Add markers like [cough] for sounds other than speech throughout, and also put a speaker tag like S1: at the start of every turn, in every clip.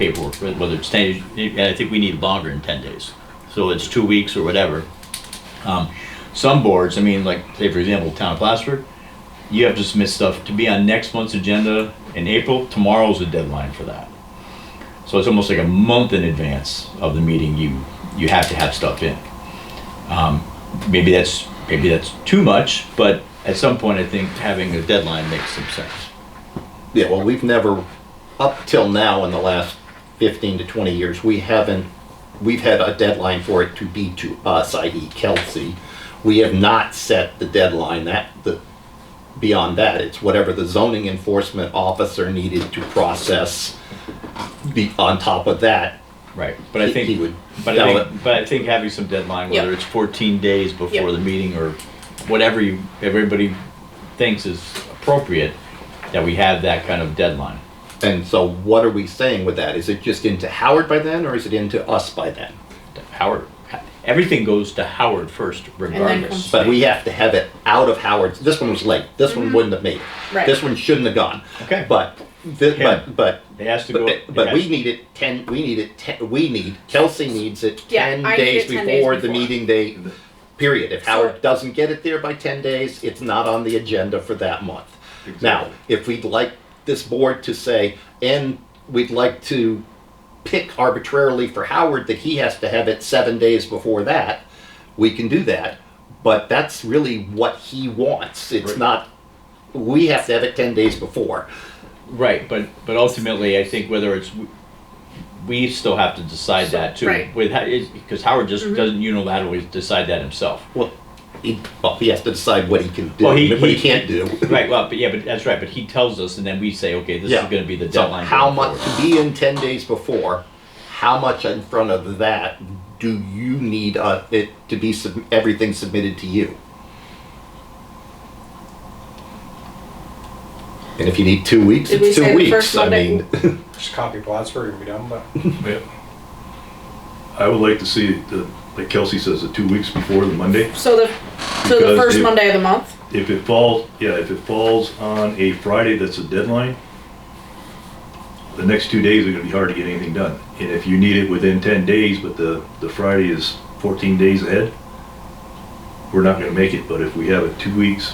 S1: paperwork, whether it's 10, days, and I think we need longer than 10 days. So it's two weeks or whatever. Um, Some boards, I mean, like, say for example, Town of Plattsburgh, you have to submit stuff to be on next month's agenda in April. Tomorrow's the deadline for that. So it's almost like a month in advance of the meeting, you, you have to have stuff in. Um, Maybe that's, maybe that's too much, but at some point, I think having a deadline makes some sense.
S2: Yeah, well, we've never, up till now in the last 15 to 20 years, we haven't, we've had a deadline for it to be to us, i.e. Kelsey. We have not set the deadline that, the, beyond that, it's whatever the zoning enforcement officer needed to process. Be, on top of that,
S1: Right, but I
S2: He-
S1: think,
S2: he would
S1: but
S2: sell
S1: I think,
S2: it.
S1: but I think having some deadline, whether
S3: Yeah.
S1: it's fourteen days before
S3: Yeah.
S1: the meeting or whatever you, everybody thinks is appropriate, that we have that kind of deadline.
S2: and so what are we saying with that? Is it just into Howard by then, or is it into us by then?
S1: Howard, everything goes to Howard first regardless.
S3: comes-
S2: But we have to have it out of Howard's. This one was late. This one wouldn't have made it.
S3: Right.
S2: This one shouldn't have gone.
S1: Okay.
S2: But, thi-
S1: Yeah.
S2: but, but,
S1: It has to go.
S2: but,
S1: it
S2: but
S1: has-
S2: we need it ten, we need it ten, we need, Kelsey needs it
S3: Yeah,
S2: ten
S3: I need
S2: days
S3: it 10 days
S2: before the
S3: before.
S2: meeting date, period. If
S3: So-
S2: Howard doesn't get it there by ten days, it's not on the agenda for that month. Now, if we'd like this board to say, and we'd like to pick arbitrarily for Howard that he has to have it seven days before that, we can do that. But that's really what he wants. It's
S1: Right.
S2: not, we have to have it 10 days before.
S1: Right, but, but ultimately, I think whether it's, we still have to decide that too.
S3: Right. Mm-hmm.
S1: With, because Howard just doesn't unilaterally decide that himself.
S2: Well, he, well, he has to decide what he can do,
S1: Well, he-
S2: and what he
S1: he-
S2: can't do.
S1: Right, well, but yeah, but that's right, but he tells us and then we say, okay, this is
S2: Yeah.
S1: gonna be the
S2: So
S1: deadline.
S2: how
S1: going
S2: much
S1: forward.
S2: to be in 10 days before, how much in front of that do you need uh, it to be sub- everything submitted to you? And if you need two weeks,
S3: Did we
S2: it's
S3: say
S2: two
S3: the
S2: weeks.
S3: first
S2: I
S3: Monday?
S2: mean,
S4: Just copy Plattsburgh and be done, but
S5: Yeah. I would like to see, the- like Kelsey says, the two weeks before the Monday.
S3: So the, so the
S5: Because
S3: first
S5: if-
S3: Monday of the month?
S5: If it falls, yeah, if it falls on a Friday, that's a deadline. The next two days are gonna be hard to get anything done. And if you need it within ten days, but the, the Friday is fourteen days ahead, we're not gonna make it, but if we have it two weeks,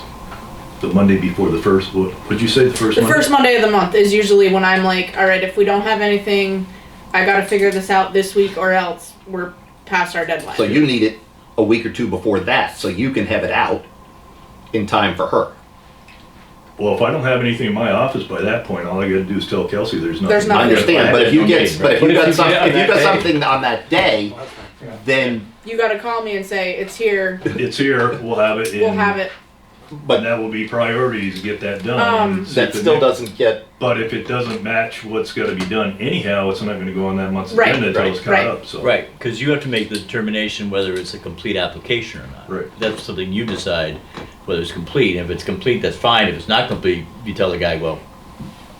S5: the Monday before the first, what, what'd you say, the first
S3: The
S5: Monday?
S3: first Monday of the month is usually when I'm like, all right, if we don't have anything, I gotta figure this out this week or else we're past our deadline.
S2: so you need it a week or two before that, so you can have it out in time for her.
S5: Well, if I don't have anything in my office by that point, all I gotta do is tell Kelsey there's nothing.
S3: There's
S2: I
S3: nothing.
S5: I'm gonna-
S2: understand,
S5: I
S2: but
S5: have
S2: if
S5: it
S2: you
S5: on
S2: get, but if
S5: tape,
S1: But
S2: you
S1: if you
S2: [laughs] got
S1: get
S2: some,
S1: it on
S2: if you
S1: that
S2: got
S1: day-
S2: something on that day,
S4: Plattsburgh, you know.
S2: then
S3: You gotta call me and say, it's here,
S5: It's here, we'll have it.
S3: we'll
S5: in-
S3: have it.
S5: And that will be priority to get that done.
S3: Um,
S5: See if
S2: that
S5: the
S2: still
S5: next-
S2: doesn't get
S5: But if it doesn't match what's gotta be done anyhow, it's not gonna go on that month's
S3: Right,
S5: agenda until it's
S3: right,
S5: caught
S3: right.
S5: up, so.
S1: Right, because you have to make the determination whether it's a complete application or not.
S5: Right.
S1: That's something you decide whether it's complete. If it's complete, that's fine. If it's not complete, you tell the guy, well,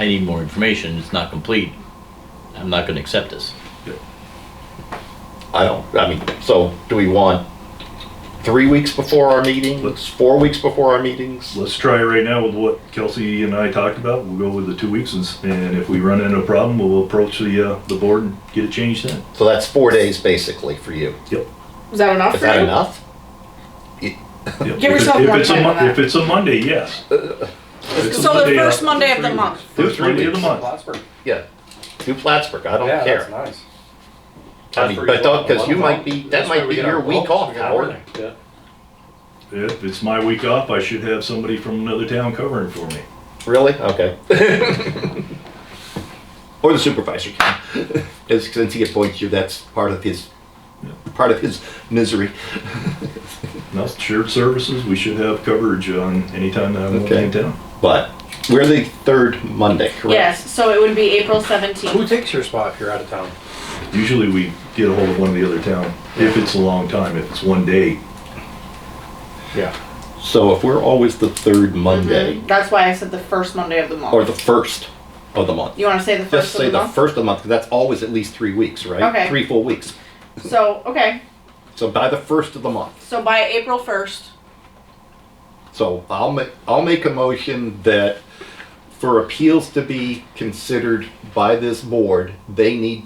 S1: I need more information. It's not complete. I'm not gonna accept this.
S2: I don't, I mean, so do we want three weeks before our meetings, four weeks before our meetings?
S5: Let's try right now with what Kelsey and I talked about. We'll go with the two weeks and, s- and if we run into a problem, we'll approach the, uh, the board and get it changed then.
S2: So that's four days basically for you.
S5: Yep.
S3: Is that enough
S2: Is
S3: for
S2: that
S3: you?
S2: enough?
S5: Yep.
S3: Give
S5: If
S3: yourself
S5: it-
S3: more
S5: if it's a
S3: time
S5: Mon-
S3: on that.
S5: If it's a Monday, yes.
S3: So the first Monday of the month.
S5: uh, First Monday of the month.
S4: Plattsburgh.
S2: Yeah. Do Plattsburgh, I don't
S4: Yeah, that's
S2: care.
S4: nice.
S2: I mean, but don't, because you might be, that might be your week off, Howard.
S4: Yeah.
S5: If it's my week off, I should have somebody from another town covering for me.
S2: Really? Okay. [laughs] Or the supervisor can. 'Cause Since he appoints you, that's part of his, part of his misery.
S5: No, shared services, we should have coverage on any time that I'm
S2: Okay.
S5: in town.
S2: But we're the third Monday, correct?
S3: Yes, so it would be April
S4: Who
S3: seventeenth.
S4: takes your spot if you're out of town?
S5: Usually we get a hold of one of the other town, if it's a long time, if it's one day.
S4: Yeah.
S2: So if we're always the third Monday,
S3: That's why I said the first Monday of the month.
S2: or the first of the month.
S3: You wanna say the
S2: Just
S3: Mm-hmm. first
S2: say
S3: of the
S2: the
S3: month?
S2: first of the month, 'cause that's always at least three weeks, right?
S3: Okay.
S2: Three full weeks.
S3: So, okay,
S2: So by the first of the month.
S3: so by April first,
S2: So I'll make, I'll make a motion that for appeals to be considered by this board, they need